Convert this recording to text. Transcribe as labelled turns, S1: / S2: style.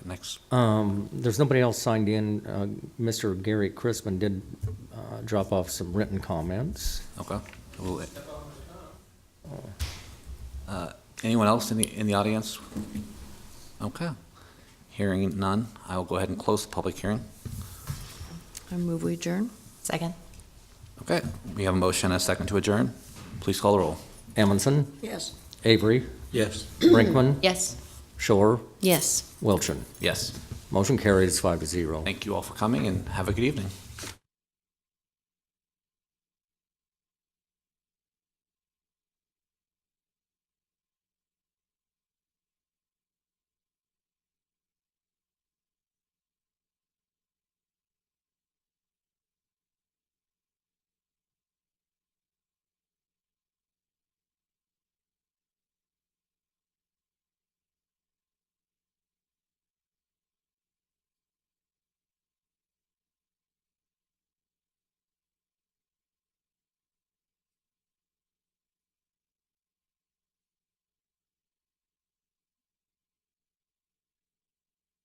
S1: next.
S2: Um, there's nobody else signed in. Uh, Mr. Gary Crispin did, uh, drop off some written comments.
S1: Okay. We'll- Uh, Anyone else in the, in the audience? Okay. Hearing none, I will go ahead and close the public hearing.
S3: I move we adjourn.
S4: Second?
S1: Okay, we have a motion and a second to adjourn. Please call the roll.
S2: Amundson,
S4: Yes.
S2: Avery,
S1: Yes.
S2: Brinkman,
S4: Yes.
S2: Shore,
S3: Yes.
S2: Wilchin.
S1: Yes.
S2: Motion carries five to zero.
S1: Thank you all for coming and have a good evening.